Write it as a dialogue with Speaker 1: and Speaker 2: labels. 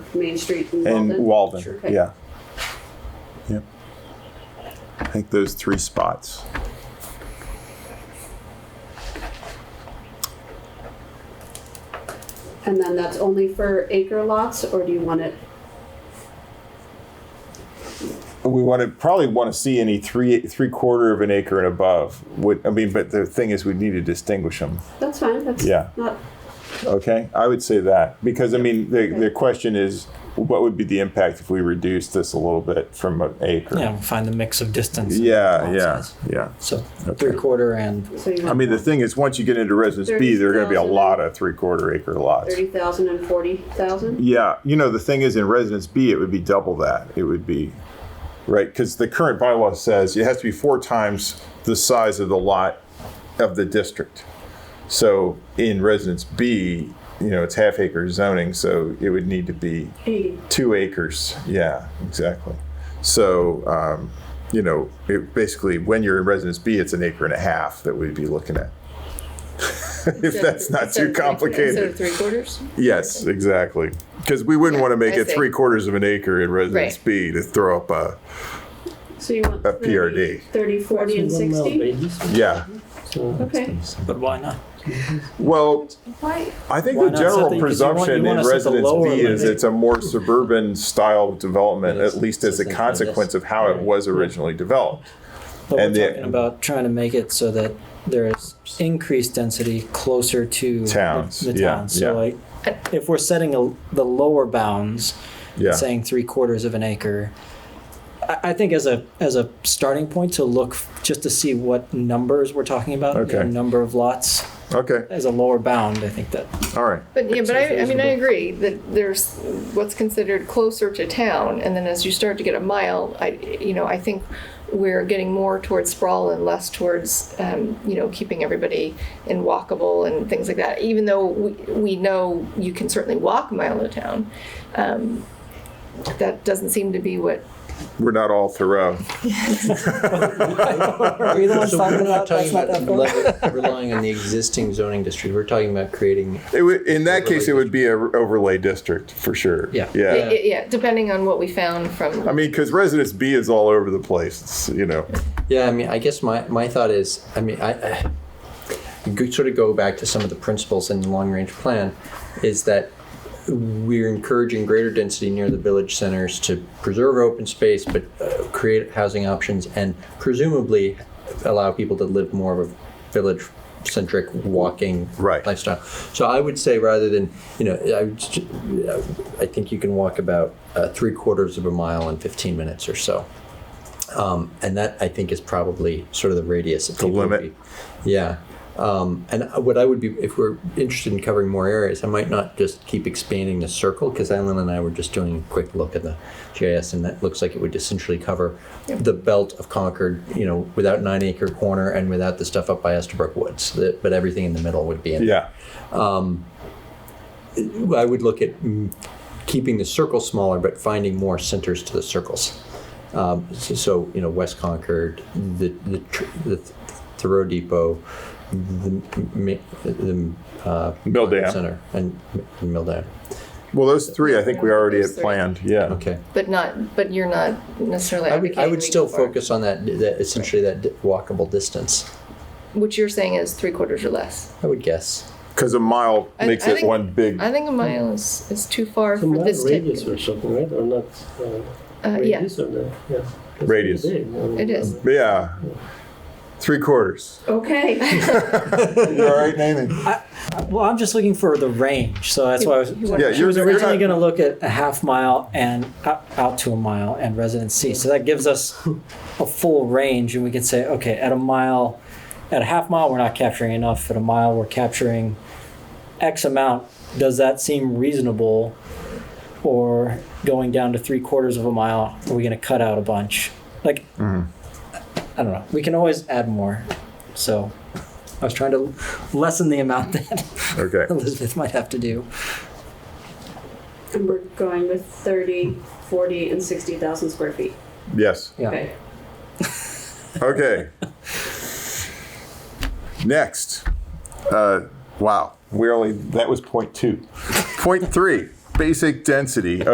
Speaker 1: Main Street and Walden.
Speaker 2: and Walden.
Speaker 1: Sure.
Speaker 2: Yeah. Yep. I think those three spots.
Speaker 1: And then that's only for acre lots, or do you want it,
Speaker 2: We want to probably want to see any three three quarter of an acre and above. Would I mean? But the thing is, we need to distinguish them.
Speaker 1: that's fine, that's
Speaker 2: Yeah.
Speaker 1: not,
Speaker 2: Okay, I would say that because I mean the the question is, what would be the impact if we reduce this a little bit from an acre?
Speaker 3: Yeah, find the mix of distance. and
Speaker 2: yeah,
Speaker 3: lot
Speaker 2: yeah,
Speaker 3: size.
Speaker 2: yeah.
Speaker 3: So
Speaker 2: Okay.
Speaker 3: three quarter and
Speaker 1: so you
Speaker 2: I
Speaker 1: want
Speaker 2: mean, the thing is, once you get into residence B, there are going to be a
Speaker 1: 30,000.
Speaker 2: lot of three quarter acre lots.
Speaker 1: thirty thousand and forty thousand?
Speaker 2: Yeah, you know, the thing is, in residence B, it would be double that. It would be, right, because the current bylaw says it has to be four times the size of the lot of the district. So in residence B, you know, it's half acre zoning, so it would need to be
Speaker 1: Eighty,
Speaker 2: two acres. Yeah, exactly. So, um, you know, it basically, when you're in residence B, it's an acre and a half that we'd be looking at. if that's not
Speaker 4: Instead
Speaker 2: too
Speaker 4: of three- Instead
Speaker 2: complicated.
Speaker 4: of three quarters?
Speaker 2: Yes, exactly. Because we wouldn't want to make
Speaker 4: I
Speaker 2: it
Speaker 4: see.
Speaker 2: three quarters of an acre in residence
Speaker 4: Right.
Speaker 2: B to throw up a,
Speaker 1: so you want
Speaker 2: A PRD.
Speaker 1: thirty, thirty, forty, and
Speaker 5: One mil
Speaker 1: sixty?
Speaker 5: radius,
Speaker 2: yeah.
Speaker 5: so-
Speaker 1: Okay,
Speaker 3: but why not?
Speaker 2: Well,
Speaker 1: why,
Speaker 2: I think
Speaker 3: Why
Speaker 2: the
Speaker 3: not
Speaker 2: general
Speaker 3: something- 'cause you want- you
Speaker 2: presumption in
Speaker 3: wanna set the
Speaker 2: residence
Speaker 3: lower
Speaker 2: B is
Speaker 3: limit.
Speaker 2: it's a more suburban style development,
Speaker 5: Yes,
Speaker 2: at least as a
Speaker 5: something like this.
Speaker 2: consequence of how it was originally developed.
Speaker 3: But
Speaker 2: And the-
Speaker 3: we're talking about trying to make it so that there is increased density closer to
Speaker 2: Towns,
Speaker 3: The, the
Speaker 2: yeah,
Speaker 3: towns. So
Speaker 2: yeah.
Speaker 3: like, if we're setting a, the lower bounds,
Speaker 2: Yeah.
Speaker 3: saying three quarters of an acre. I I think as a as a starting point to look f- just to see what numbers we're talking about, you know,
Speaker 2: Okay.
Speaker 3: number of lots
Speaker 2: Okay,
Speaker 3: as a lower bound. I think that
Speaker 2: all right.
Speaker 4: But yeah, but I, I mean, I
Speaker 5: reasonable.
Speaker 4: agree that there's what's considered closer to town, and then as you start to get a mile, I, you know, I think we're getting more towards sprawl and less towards, um, you know, keeping everybody in walkable and things like that. Even though we, we know you can certainly walk a mile to town, um, that doesn't seem to be what.
Speaker 2: We're not all Thoreau.
Speaker 3: are you the ones
Speaker 5: So
Speaker 3: talking about that's
Speaker 5: we're not talking
Speaker 3: not
Speaker 5: about
Speaker 3: that far?
Speaker 5: level- relying on the existing zoning district. We're talking about creating.
Speaker 2: It would, in that case, it
Speaker 5: Overlay
Speaker 2: would be a overlay district for sure.
Speaker 3: Yeah.
Speaker 5: Uh,
Speaker 4: Yeah.
Speaker 2: Yeah.
Speaker 4: yeah, depending on what we found from.
Speaker 2: I mean, because residence B is all over the place. It's, you know,
Speaker 5: Yeah, I mean, I guess my, my thought is, I mean, I, I you could sort of go back to some of the principles in the long range plan, is that we're encouraging greater density near the village centers to preserve open space, but uh, create housing options and presumably allow people to live more of a village centric walking
Speaker 2: Right.
Speaker 5: lifestyle. So I would say rather than, you know, I, would st- I think you can walk about uh, three quarters of a mile in 15 minutes or so. Um, and that I think is probably sort of the radius of the
Speaker 2: limit.
Speaker 5: yeah. Um, and what I would be, if we're interested in covering more areas, I might not just keep expanding the circle because Ellen and I were just doing a quick look at the GIS, and that looks like it would essentially cover the belt of Concord, you know, without Nine Acre Corner and without the stuff up by Estabrook Woods. The, but everything in the middle would be in.
Speaker 2: yeah.
Speaker 5: I would look at mm, keeping the circle smaller, but finding more centers to the circles. Um, so, so, you know, West Concord, the the, tr- the Thoreau Depot, the, m- the uh,
Speaker 2: Mill Dam.
Speaker 5: Center, and M- Mill Dam.
Speaker 2: Well, those three, I think we already had
Speaker 4: Those three.
Speaker 2: planned. Yeah.
Speaker 5: Okay.
Speaker 4: But not, but you're not necessarily.
Speaker 5: I would, I
Speaker 4: advocating
Speaker 5: would
Speaker 4: we
Speaker 5: still
Speaker 4: go for-
Speaker 5: focus on that, that essentially that di- walkable distance.
Speaker 4: Which you're saying is three quarters or less.
Speaker 5: I would guess.
Speaker 2: Because a mile
Speaker 4: I-
Speaker 2: makes
Speaker 4: I
Speaker 2: it
Speaker 4: think-
Speaker 2: one big.
Speaker 4: I think a mile is, is too far
Speaker 5: a
Speaker 4: for
Speaker 5: mile
Speaker 4: this type.
Speaker 5: radius
Speaker 4: of-
Speaker 5: or something, right? Or not? Uh,
Speaker 4: Uh, yeah,
Speaker 5: radius or not? Yeah.
Speaker 2: Radius.
Speaker 5: Big, I mean,
Speaker 4: it is.
Speaker 2: yeah. Three quarters.
Speaker 1: okay,
Speaker 2: You all right, Nathan?
Speaker 3: Well, I'm just looking for the range, so that's why I was.
Speaker 4: You- you want-
Speaker 2: Yeah,
Speaker 3: She was
Speaker 2: you're- you're
Speaker 3: originally
Speaker 2: not-
Speaker 3: going to look at a half mile and out out to a mile and residency. So that gives us a full range, and we can say, okay, at a mile, at a half mile, we're not capturing enough. At a mile, we're capturing X amount. Does that seem reasonable? Or going down to three quarters of a mile, are we going to cut out a bunch? Like, I don't know. We can always add more. So I was trying to lessen the amount that
Speaker 2: Okay.
Speaker 3: Elizabeth might have to do.
Speaker 1: and we're going with thirty, forty, and sixty thousand square feet,
Speaker 2: Yes.
Speaker 3: Yeah.
Speaker 1: okay?
Speaker 2: Okay. Next. Uh, wow. We only, that was point two. point three basic density.